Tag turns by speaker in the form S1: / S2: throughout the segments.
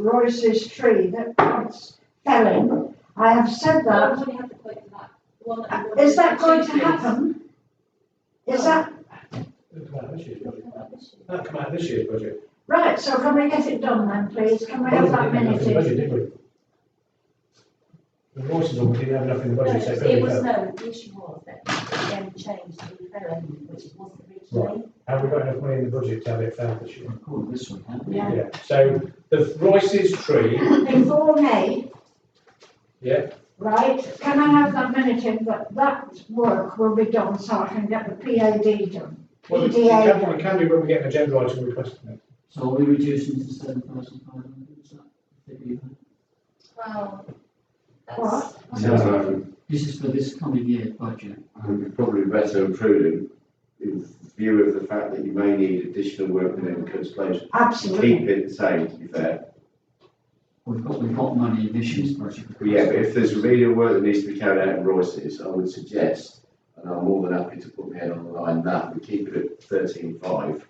S1: Royce's tree that once fell in. I have said that.
S2: Somebody had to point to that. The one that we
S1: Uh, Is that going
S2: wanted
S1: to
S2: the two
S1: happen? Is that,
S3: It'll come out of this year's budget. That'll come out of this year's budget.
S1: right, so can we get it done then, please? Can we have that
S3: Well, we didn't have enough in the
S1: minute?
S3: budget, did we? The voices on, we didn't have enough in the budget, so
S2: trees. No,
S3: there
S2: it
S3: we
S2: was,
S3: go.
S2: no, the issue was that it then changed to the fair end, which it wasn't originally.
S3: Have we got enough money in the budget to have it found this year?
S4: Record this one, haven't we?
S2: Yeah.
S3: Yeah, so the Royce's tree,
S1: Before May,
S3: yeah,
S1: right, can I have that minute in, but that work will be done so I can get the PAD done?
S3: well, we can, we can do when we get an agenda item requesting it.
S4: So are we reducing to seven thousand five hundred, is that the figure you had?
S2: Well, that's,
S1: What?
S5: No,
S4: This is for this coming year budget.
S5: and we're probably better and prudent in view of the fact that you may need additional work within the coast place.
S1: Absolutely.
S5: Keep it the same, to be fair.
S4: We've got, we've got money in this year's budget.
S5: But yeah, but if there's remedial work that needs to be carried out in Royce's, I would suggest, and I'm more than happy to put my head on the line, that we keep it at thirteen five.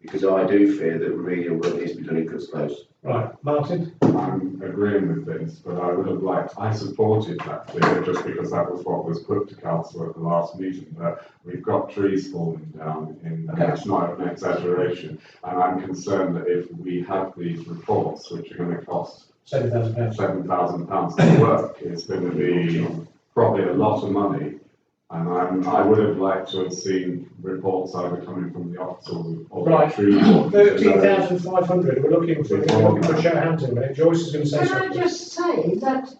S5: Because I do fear that remedial work needs to be done in coast Close.
S3: Right, Martin,
S6: I'm agreeing with this, but I would have liked, I supported that figure just because that was what was put to council at the last meeting, but we've got trees falling down in,
S3: Okay.
S6: that's not an exaggeration. And I'm concerned that if we have these reports, which are gonna cost
S3: seven thousand pounds.
S6: seven thousand pounds to work, it's gonna be probably a lot of money. And I'm, I would have liked to have seen reports either coming from the officers or the
S3: Right.
S6: tree wardens.
S3: Thirteen thousand five hundred, we're looking for, we're looking for a shout out to it. Joyce is going to say
S1: Can I
S3: something.
S1: just say that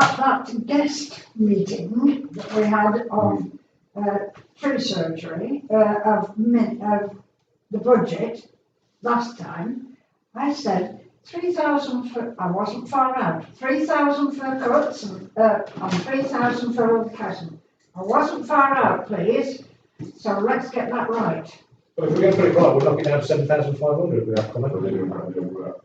S1: at that guest meeting that we had of, uh, tree surgery, uh, of min, of the budget last time, I said three thousand for, I wasn't far out, three thousand for cuts and, uh, and three thousand for old chasm. I wasn't far out, please, so let's get that right.
S3: But if we're going to put it right, we'll knock it down to seven thousand five hundred without comment.
S6: But they don't have their work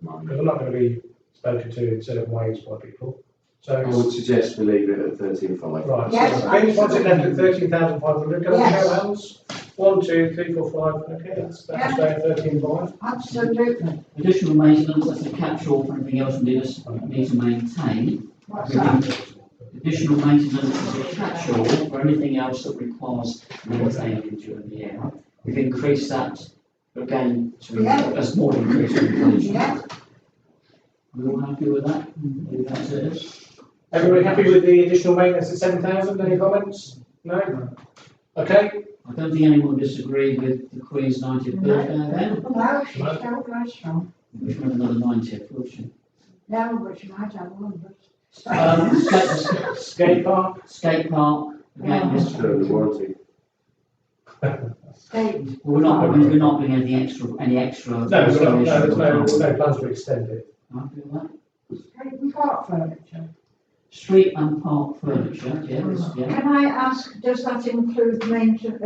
S6: money.
S3: Because I'm not going to be spoken to in certain ways by people.
S5: I
S3: So,
S5: would suggest we leave it at thirteen five.
S3: right,
S1: Yes,
S3: so James wants it left at thirteen thousand five hundred, can I
S1: Yes.
S3: show hands? One, two, three, four, five, okay, that's, that's about thirteen five.
S1: Absolutely.
S4: Additional maintenance, that's a catch-all for everything else we just need to maintain.
S1: What's that?
S4: Additional maintenance is a catch-all for anything else that requires maintaining during the year. We've increased that again to
S1: Yeah.
S4: a small increase in inflation.
S1: Yeah.
S4: Are we all happy with that? I think that's it.
S3: Everybody happy with the additional maintenance at seven thousand, any comments? No? Okay,
S4: I don't think anyone disagreed with the Queen's ninetieth birthday then,
S1: No, she's still very strong.
S4: which was another ninetieth, wasn't
S1: No, but you might have one,
S4: it? Um, skate,
S3: skate park,
S4: skate park, again, this,
S5: Still in the warranty.
S1: state.
S4: we're not, we're not doing any extra, any extra.
S3: no, there's no, no, there's no,
S4: Happy
S3: no plans to extend it.
S4: with that?
S1: State and park furniture.
S4: Street and park furniture, yeah, this- yeah.
S1: Can I ask, does that include mainten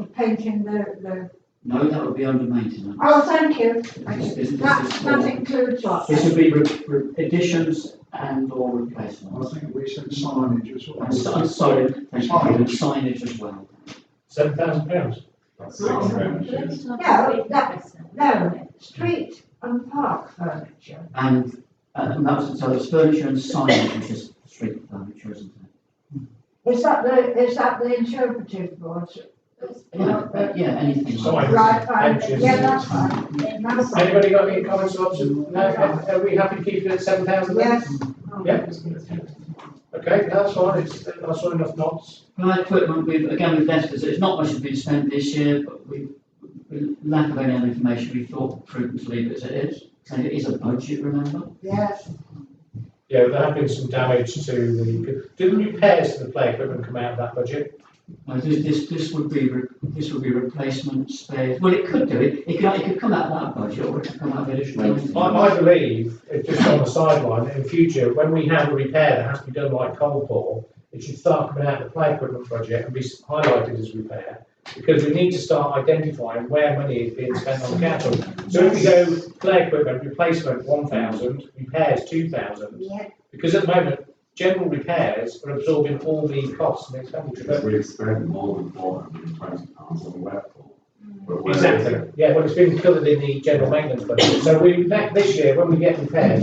S1: uh, painting the, the,
S4: No, that would be under maintenance.
S1: oh, thank you.
S4: This- this- this
S1: That,
S4: is
S1: that
S4: for-
S1: includes what?
S4: This would be re- re- additions and or replacements.
S7: I think we said signage as
S4: And si- and sorry, thank you, and signage as well.
S3: Seven thousand pounds.
S6: That's
S2: Right,
S6: six grand,
S2: let
S6: yes.
S2: me tell you
S1: No,
S2: what it
S1: that-
S2: is now.
S1: No, street and park furniture.
S4: And, uh, and that was, so it's furniture and signage, which is street uh, furniture, isn't it?
S1: Is that the, is that the interpretive board?
S2: Those-
S4: Yeah, uh, yeah, anything like that.
S1: Right, fine,
S3: Benches.
S1: yeah, that's fine. That's fine.
S3: Anybody got any comments or options? No, are are we happy keeping it at seven thousand?
S1: Yes.
S3: Yeah. Okay, that's fine, it's, I saw enough knots.
S4: Right, equipment, we've, again, we've left, it's not much has been spent this year, but we, we- lack of any other information, we thought prudent to leave it as it is. And it is a budget, remember?
S1: Oh, Yes,
S3: Yeah, there have been some damage to the, didn't repairs to the play equipment come out of that budget?
S4: No, this, this, this would be, re- this would be replacement spares, well, it could do, it, it could, it could come out of that budget, or it could come out of additional.
S3: I, I believe, it's just on the sideline, in future, when we have a repair that has to be done like coal pour, it should start coming out of the play equipment budget and be s- highlighted as repair, because we need to start identifying where money is being spent on capital. So if we go play equipment, replacement one thousand, repairs two thousand,
S1: yeah,
S3: Because at the moment, general repairs are absorbing all the costs and expenditure.
S6: We spend more than four hundred and twenty pounds on wet pool. But where is it?
S3: Exactly, yeah, well, it's been covered in the general maintenance budget, so we, that, this year, when we get repairs,